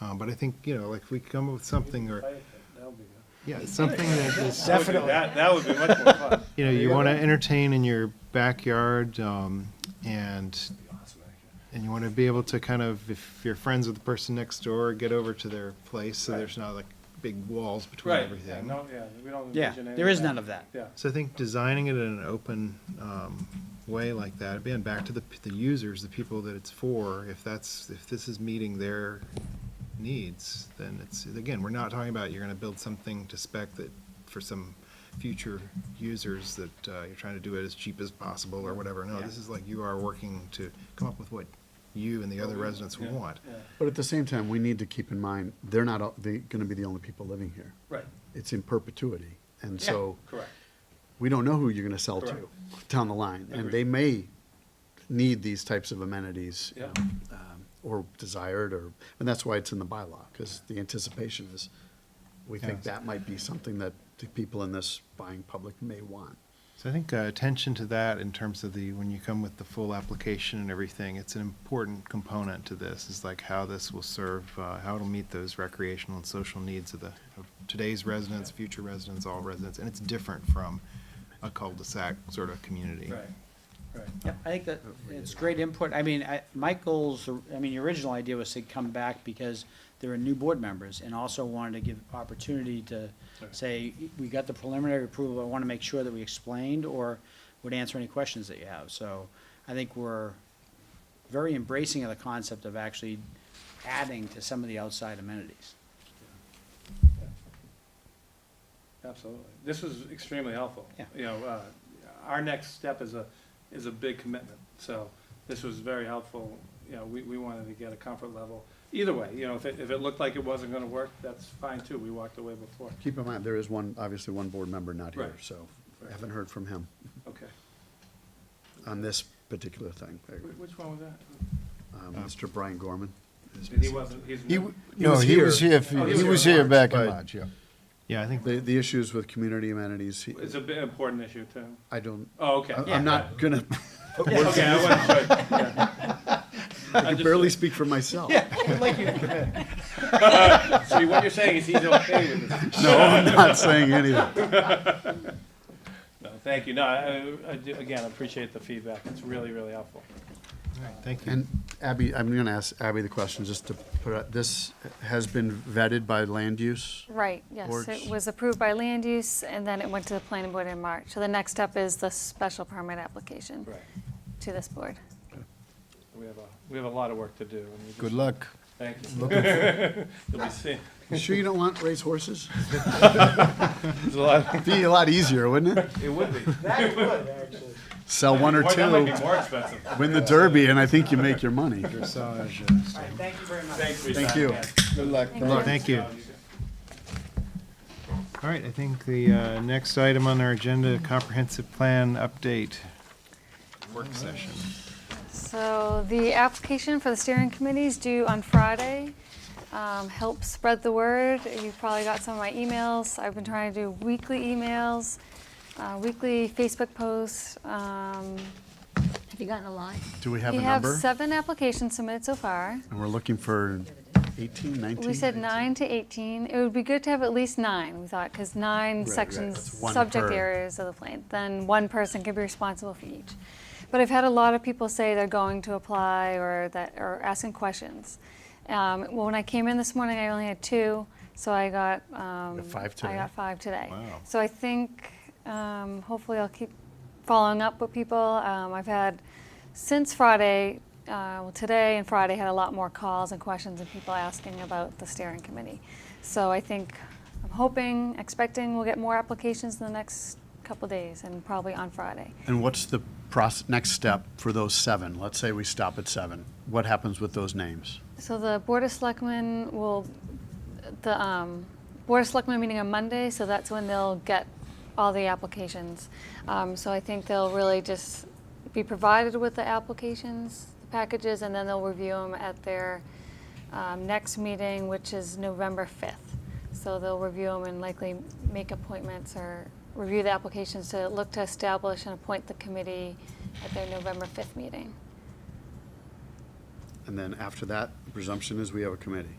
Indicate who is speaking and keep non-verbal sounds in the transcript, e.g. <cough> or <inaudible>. Speaker 1: Uh, But I think, you know, like if we come up with something or,
Speaker 2: That would be good.
Speaker 1: yeah, something that is,
Speaker 2: Definitely. That, that would be much more fun.
Speaker 1: you know, you want to entertain in your backyard um, and, and you want to be able to kind of, if you're friends with the person next door, get over to their place so
Speaker 2: Right.
Speaker 1: there's not like big walls between
Speaker 2: <laughs> Right, yeah,
Speaker 1: everything.
Speaker 2: no, yeah, we don't
Speaker 3: Yeah,
Speaker 2: envision any
Speaker 3: there is none of that.
Speaker 2: Yeah,
Speaker 1: So I think designing it in an open um, way like that, again, back to the, p- the users, the people that it's for, if that's, if this is meeting their needs, then it's, again, we're not talking about you're gonna build something to spec that, for some future users that uh, you're trying to do it as cheap as possible or whatever. No, this is like you are working to come up with what you and the other residents
Speaker 2: Yeah.
Speaker 1: want.
Speaker 2: yeah,
Speaker 4: But at the same time, we need to keep in mind, they're not, all- they're gonna be the only people living here.
Speaker 2: right,
Speaker 4: It's in perpetuity. And
Speaker 2: Yeah.
Speaker 4: so,
Speaker 2: correct.
Speaker 4: we don't know who you're gonna sell to down the line. And they may need these types of amenities. you
Speaker 2: Yeah.
Speaker 4: know, um, Or desired, or, and that's why it's in the bylaw, because the anticipation is, we think
Speaker 1: Yes.
Speaker 4: that might be something that the people in this buying public may want.
Speaker 1: So I think uh, attention to that in terms of the, when you come with the full application and everything, it's an important component to this, is like how this will serve, uh, how it'll meet those recreational and social needs of the, of today's residents, future residents, all residents, and it's different from a cul-de-sac sort of community.
Speaker 2: Right, right.
Speaker 3: Yeah, I think that it's great input. I mean, I, my goals, are- I mean, the original idea was to come back because there are new board members and also wanted to give opportunity to say, we got the preliminary approval, I want to make sure that we explained or would answer any questions that you have. So I think we're very embracing of the concept of actually adding to some of the outside amenities.
Speaker 2: Absolutely. This was extremely helpful.
Speaker 3: Yeah.
Speaker 2: You know, uh, our next step is a, is a big commitment, so this was very helpful. You know, we, we wanted to get a comfort level. Either way, you know, if it, if it looked like it wasn't gonna work, that's fine too. We walked away before.
Speaker 4: Keep in mind, there is one, obviously one board member not here,
Speaker 2: Right.
Speaker 4: so
Speaker 2: Right.
Speaker 4: haven't heard from him
Speaker 2: Okay.
Speaker 4: on this particular thing.
Speaker 2: Wh- Which one was that?
Speaker 4: Um, Mr. Brian Gorman. is
Speaker 2: He wasn't, he's.
Speaker 4: He w-
Speaker 5: No, he was here,
Speaker 2: Oh,
Speaker 5: for- he
Speaker 2: he was
Speaker 5: was
Speaker 2: here in
Speaker 5: here back in
Speaker 4: March, but-
Speaker 5: March, yeah.
Speaker 1: Yeah, I think,
Speaker 4: The, the issues with community amenities, he-
Speaker 2: It's a bit important issue too.
Speaker 4: I don't,
Speaker 2: Oh, okay.
Speaker 4: I-
Speaker 2: Yeah.
Speaker 4: I'm not gonna,
Speaker 2: Okay, I wasn't sure.
Speaker 4: I can barely speak for myself.
Speaker 2: So what you're saying is he's okay with this?
Speaker 4: <laughs> No, I'm not saying anything.
Speaker 2: No, thank you. No, I- I, I do, again, appreciate the feedback. It's really, really helpful.
Speaker 1: all right, thank you.
Speaker 4: And Abby, I'm gonna ask Abby the question, just to put, out- this has been vetted by land use?
Speaker 6: Right, yes,
Speaker 4: Boards.
Speaker 6: it was approved by land use, and then it went to the planning board in March. So the next step is the special permit application
Speaker 2: Right.
Speaker 6: to this board.
Speaker 2: We have a, we have a lot of work to do. and we
Speaker 5: Good
Speaker 2: just-
Speaker 5: luck.
Speaker 2: Thank you. <laughs> You'll be seeing,
Speaker 4: You sure you don't want racehorses?
Speaker 2: there's a lot,
Speaker 4: It'd Be a lot easier, wouldn't it?
Speaker 2: it would be.
Speaker 3: That would, actually.
Speaker 4: Sell one or
Speaker 2: Boy, That might
Speaker 4: two,
Speaker 2: be more expensive.
Speaker 4: win the derby, and I think you make your money.
Speaker 1: Dressage, uh,
Speaker 3: All right, thank you very much.
Speaker 2: Thanks, Rita.
Speaker 4: Thank you.
Speaker 5: Good luck.
Speaker 1: Thank you. All right, I think the uh, next item on our agenda, comprehensive plan update, work session.
Speaker 6: So the application for the steering committee is due on Friday. Um, Help spread the word. You've probably got some of my emails. I've been trying to do weekly emails, uh, weekly Facebook posts. Um,
Speaker 7: Have you gotten a lot?
Speaker 4: Do we have a
Speaker 6: We have
Speaker 4: number?
Speaker 6: seven applications submitted so far.
Speaker 4: And we're looking for 18, 19?
Speaker 6: We said nine to 18. It would be good to have at least nine, we thought, because nine
Speaker 4: right.
Speaker 6: sections,
Speaker 4: That's one
Speaker 6: subject
Speaker 4: per.
Speaker 6: areas of the plan, then one person can be responsible for each. But I've had a lot of people say they're going to apply or that, or asking questions. Um, Well, when I came in this morning, I only had two, so I got, um,
Speaker 4: five
Speaker 6: I
Speaker 4: today?
Speaker 6: got five today.
Speaker 1: Wow.
Speaker 6: So I think, um, hopefully I'll keep following up with people. Um, I've had, since Friday, uh, well, today and Friday, had a lot more calls and questions and people asking about the steering committee. So I think, I'm hoping, expecting we'll get more applications in the next couple days and probably on Friday.
Speaker 4: And what's the process, next step for those seven? Let's say we stop at seven. What happens with those names?
Speaker 6: So the Board of Selectmen will, the um, Board of Selectmen meeting on Monday, so that's when they'll get all the applications. Um, So I think they'll really just be provided with the applications, the packages, and then they'll review them at their um, next meeting, which is November 5th. So they'll review them and likely make appointments or review the applications to look to establish and appoint the committee at their November 5th meeting.
Speaker 4: And then after that, the presumption is we have a committee.